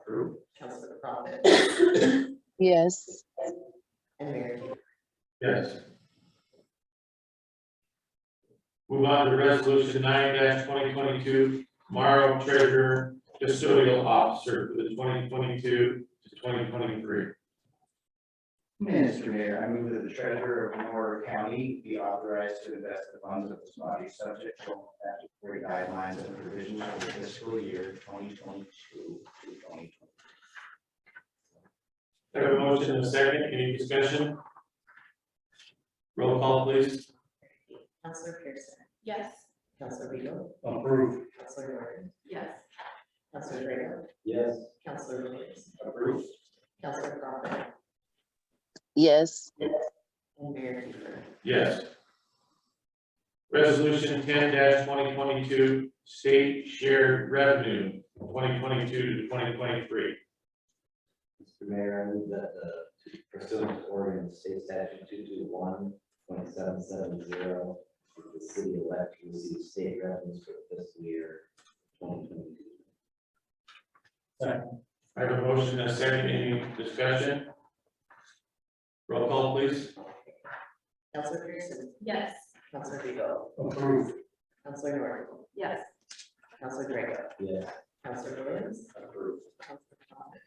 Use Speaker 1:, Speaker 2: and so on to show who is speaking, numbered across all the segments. Speaker 1: Approve.
Speaker 2: Councilman Profit
Speaker 3: yes,
Speaker 2: and Mayor Hughes.
Speaker 4: Yes. Move on to resolution nine twenty twenty-two, Morrow Treasurer Custodial Officer for the twenty twenty-two to twenty twenty-three.
Speaker 1: Mr. Mayor, I move that the treasurer of Monroe County be authorized to invest the funds of this body subject to all statutory guidelines and provisions for the fiscal year twenty twenty-two to twenty
Speaker 4: I have a motion and a second, any discussion? Roll call please.
Speaker 2: Councilor Pearson,
Speaker 5: yes,
Speaker 2: Councilor Beal,
Speaker 1: twenty. Approve.
Speaker 2: Councilor Martin,
Speaker 5: yes,
Speaker 2: Councilor Drago,
Speaker 1: Yes.
Speaker 2: Councilor Williams,
Speaker 1: Approve.
Speaker 2: Councilor Profit
Speaker 3: yes,
Speaker 2: and Mayor Hughes.
Speaker 4: Yes. Resolution ten twenty twenty-two, State Shared Revenue, twenty twenty-two to twenty twenty-three.
Speaker 6: Mr. Mayor, I move that the pursuant to Oregon State Statute two two one point seven seven zero, the city elect to receive state revenues for the fiscal year twenty twenty-two.
Speaker 4: I have a motion and a second, any discussion? Roll call please.
Speaker 2: Councilor Pearson,
Speaker 5: yes,
Speaker 2: Councilor Beal,
Speaker 1: Approve.
Speaker 2: Councilor Martin,
Speaker 5: yes,
Speaker 2: Councilor Drago,
Speaker 6: Yes,
Speaker 2: Councilor Williams,
Speaker 6: approved.
Speaker 2: Councilor Profit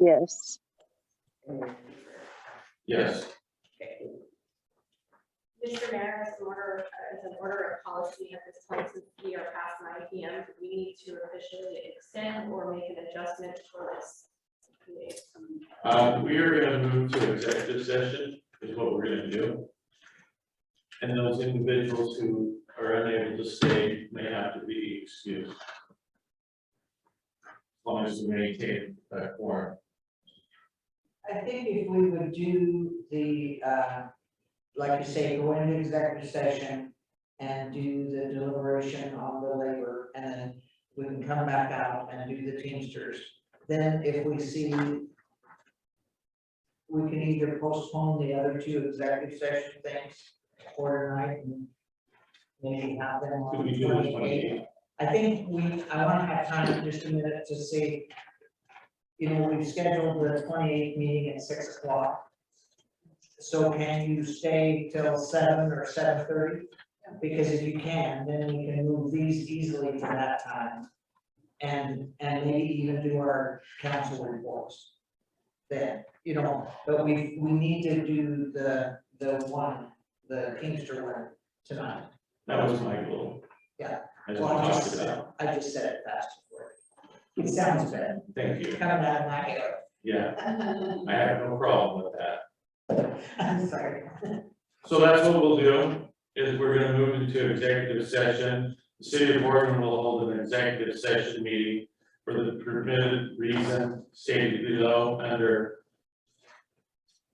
Speaker 3: yes,
Speaker 2: and Mayor Hughes.
Speaker 4: Yes.
Speaker 2: Okay,
Speaker 5: Mr. Mayor, as an order, as an order of policy at this point, since we are past nine P M, we need to officially extend or make an adjustment for this. meeting.
Speaker 4: Uh, we are gonna move to executive session is what we're gonna do. And those individuals who are unable to stay may have to be excused. As long as we maintain that form.
Speaker 7: I think if we would do the, uh, like you say, go into executive session and do the deliberation on the labor, and then we can come back out and do the Teamsters. Then if we see, we can either postpone the other two executive session things for tonight and maybe have them on.
Speaker 4: Could we do this one?
Speaker 7: 28th. I think we, I wanna have time just a minute to see. You know, we've scheduled the twenty-eighth meeting at six o'clock. So can you stay till seven or seven thirty? Because if you can, then we can move these easily to that time. And, and maybe even do our council reports. Then, you know, but we, we need to do the, the one, the Kingster one tonight.
Speaker 4: That was my goal.
Speaker 7: Yeah.
Speaker 4: As we
Speaker 7: Well, I
Speaker 4: talked
Speaker 7: just,
Speaker 4: about,
Speaker 7: I just said it fast for you. It sounds bad,
Speaker 4: thank you,
Speaker 7: coming out of my ear.
Speaker 4: yeah, I have no problem with that.
Speaker 7: I'm sorry.
Speaker 4: So that's what we'll do, is we're gonna move into executive session. The city of Morgan will hold an executive session meeting for the permitted reason stated below under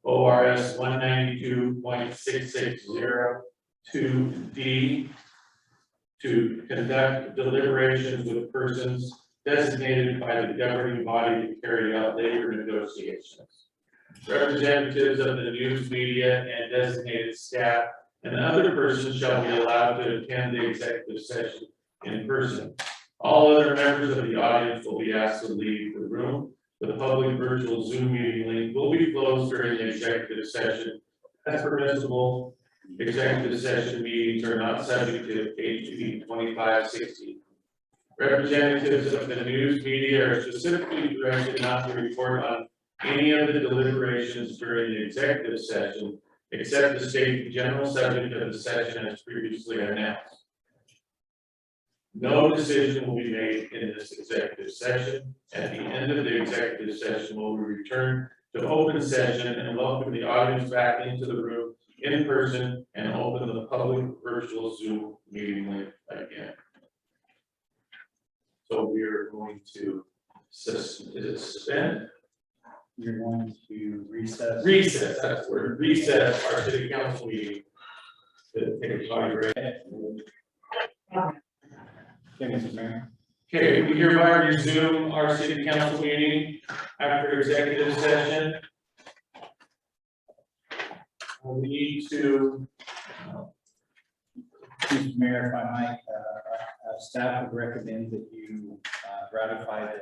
Speaker 4: O R S one ninety-two point six six zero two D to conduct deliberations with persons designated by the governing body to carry out labor negotiations representatives of the news media and designated staff and other persons shall be allowed to attend the executive session in person. All other members of the audience will be asked to leave the room. The public virtual Zoom meeting link will be closed during the executive session. As permissible, executive session meetings are not subject to HB twenty-five sixty. Representatives of the news media are specifically directed not to report on any of the deliberations during the executive session, except to state the general subject of the session as previously announced. No decision will be made in this executive session. At the end of the executive session, we will return to open session and welcome the audience back into the room in person and open the public virtual Zoom meeting link again. So we are going to sus- is it suspend
Speaker 1: You're going to recess.
Speaker 4: recess, that's the word, recess our city council meeting. To take a five break.
Speaker 1: Thank you, Mr. Mayor.
Speaker 4: Okay, we hereby resume our city council meeting after executive session. We need to,
Speaker 1: Mr. Mayor, if I might, uh, uh, staff would recommend that you uh, ratify the